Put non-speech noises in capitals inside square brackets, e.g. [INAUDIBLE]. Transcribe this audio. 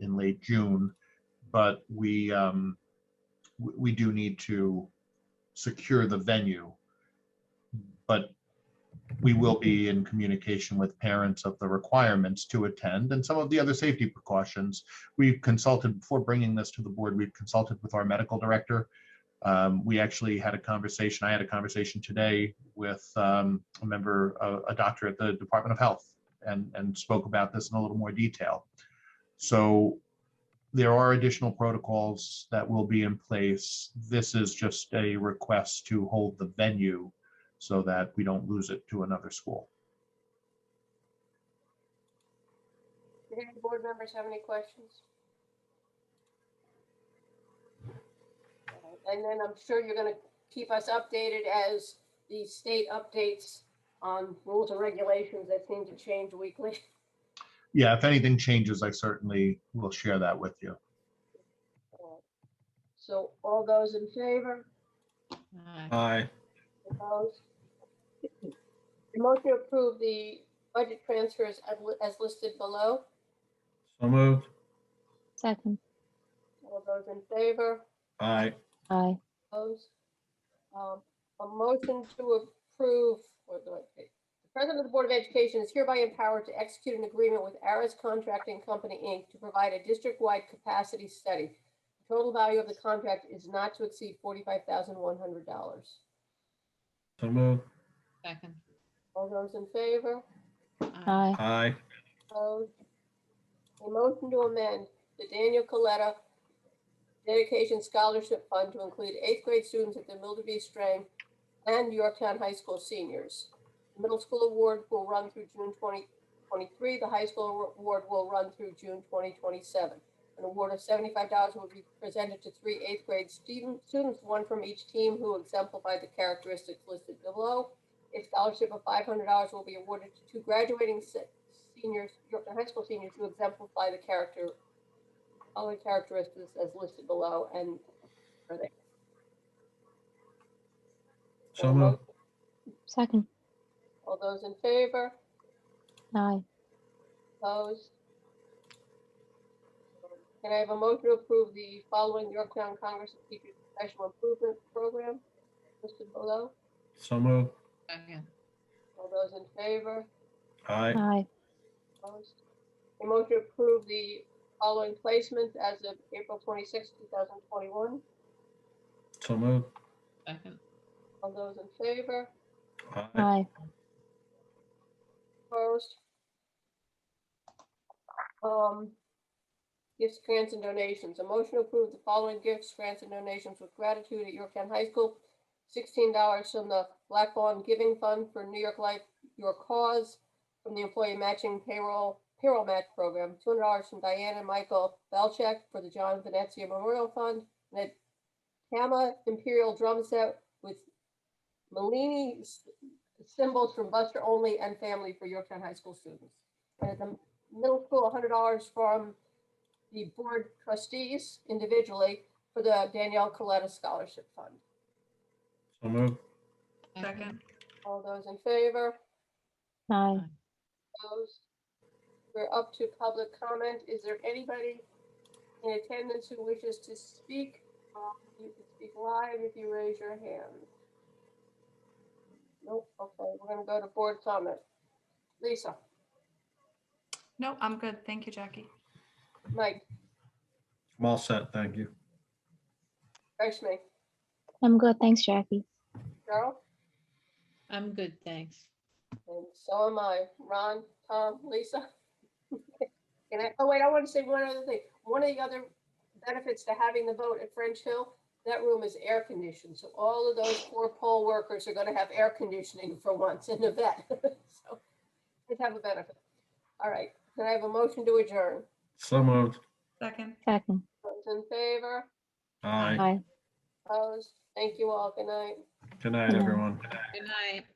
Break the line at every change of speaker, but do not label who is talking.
in late June, but we, um, we, we do need to secure the venue. But we will be in communication with parents of the requirements to attend and some of the other safety precautions. We've consulted, before bringing this to the board, we've consulted with our medical director. Um, we actually had a conversation, I had a conversation today with, um, a member, a, a doctor at the Department of Health and, and spoke about this in a little more detail. So there are additional protocols that will be in place. This is just a request to hold the venue so that we don't lose it to another school.
Do any board members have any questions? Alright, And then I'm sure you're gonna keep us updated as the state updates on rules and regulations that seem to change weekly.
Yeah, if anything changes, I certainly will share that with you.
So all those in favor,
Aye.
opposed? The Motion to approve the budget transfers as li- as listed below.
So moved.
Second.
All those in favor?
Aye.
Aye.
Opposed? Um, A motion to approve, what do I say? The President of the Board of Education is hereby empowered to execute an agreement with Aris Contracting Company, Inc. to provide a district-wide capacity study. The Total value of the contract is not to exceed forty-five thousand one hundred dollars.
So moved.
Second.
All those in favor?
Aye.
Aye.
Opposed? A motion to amend the Daniel Coletta Dedication Scholarship Fund to include eighth grade students at the Milderby Strang and Yorktown High School seniors. The Middle school award will run through June 2023. The high school award will run through June 2027. An award of $75 will be presented to three eighth grade student- students, one from each team who exemplify the characteristics listed below. A scholarship of $500 will be awarded to two graduating se- seniors, Yorktown High School seniors who exemplify the character, all the characteristics as listed below and are they?
So moved.
Second.
All those in favor,
Aye.
opposed? Can I have a motion to approve the following Yorktown Congress of Teachers Professional Improvement Program listed below?
So moved.
Second.
All those in favor,
Aye.
Aye.
Opposed? A motion to approve the following placements as of April 26, 2021.
So moved.
Second.
All those in favor,
Aye.
Aye.
Opposed? Um, gifts, grants, and donations. A motion to approve the following gifts, grants, and donations with gratitude at Yorktown High School. Sixteen dollars from the Black Bond Giving Fund for New York Life, Your Cause, from the Employee Matching Payroll, Payroll Match Program. Two hundred dollars from Diana and Michael Belcheck for the John Venezia Memorial Fund. And a Tama Imperial Drum Set with Malini s- symbols from Buster Only and Family for Yorktown High School students. And at the middle school, hundred dollars from the board trustees individually for the Danielle Coletta Scholarship Fund.
So moved.
Second.
All those in favor?
Aye.
Opposed? We're up to public comment. Is there anybody in attendance who wishes to speak? Um, You can speak live if you raise your hand. Nope, okay, we're gonna go to board comment. Lisa,
No, I'm good. Thank you, Jackie.
Mike,
I'm all set. Thank you.
Rashmi,
I'm good. Thanks, Jackie.
Cheryl,
I'm good, thanks.
and so am I. Ron, Tom, Lisa. [LAUGHS] And I, oh wait, I want to say one other thing. One of the other benefits to having the vote at French Hill, that room is air conditioned. So all of those poor poll workers are going to have air conditioning for once in the vet. [LAUGHS] So it have a benefit. All right, can I have a motion to adjourn?
So moved.
Second.
Second.
Those in favor?
Aye.
Aye.
Opposed? Thank you all. Good night.
Good night, everyone.
Good night.